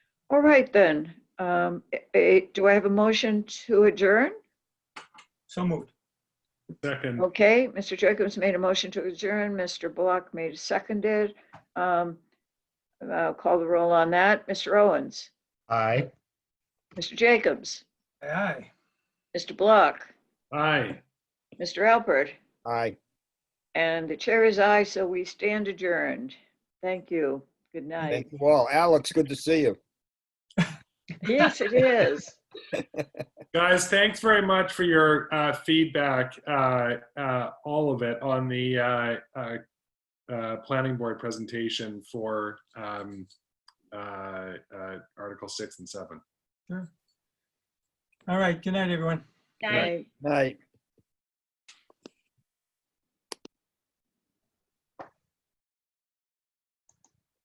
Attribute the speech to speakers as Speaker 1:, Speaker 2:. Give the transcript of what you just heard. Speaker 1: All right then. Um, eh, eh, Do I have a motion to adjourn?
Speaker 2: So moved.
Speaker 3: Second,
Speaker 1: Okay, Mr. Jacobs made a motion to adjourn. Mr. Block made a seconded. Um, I'll call the roll on that. Mr. Owens,
Speaker 4: Aye.
Speaker 1: Mr. Jacobs,
Speaker 2: Aye, Aye.
Speaker 1: Mr. Block,
Speaker 3: aye.
Speaker 1: Mr. Alpert,
Speaker 4: Aye.
Speaker 1: and the chair is aye, so we stand adjourned. Thank you. Good night.
Speaker 4: Thank you all. Alex, good to see you.
Speaker 1: Yes, it is.
Speaker 3: Guys, thanks very much for your uh, feedback, uh, uh, all of it on the uh, uh, uh, planning board presentation for um, uh, uh, Article 6 and 7.
Speaker 2: All right, good night, everyone.
Speaker 3: Right.
Speaker 1: Night.
Speaker 4: Night.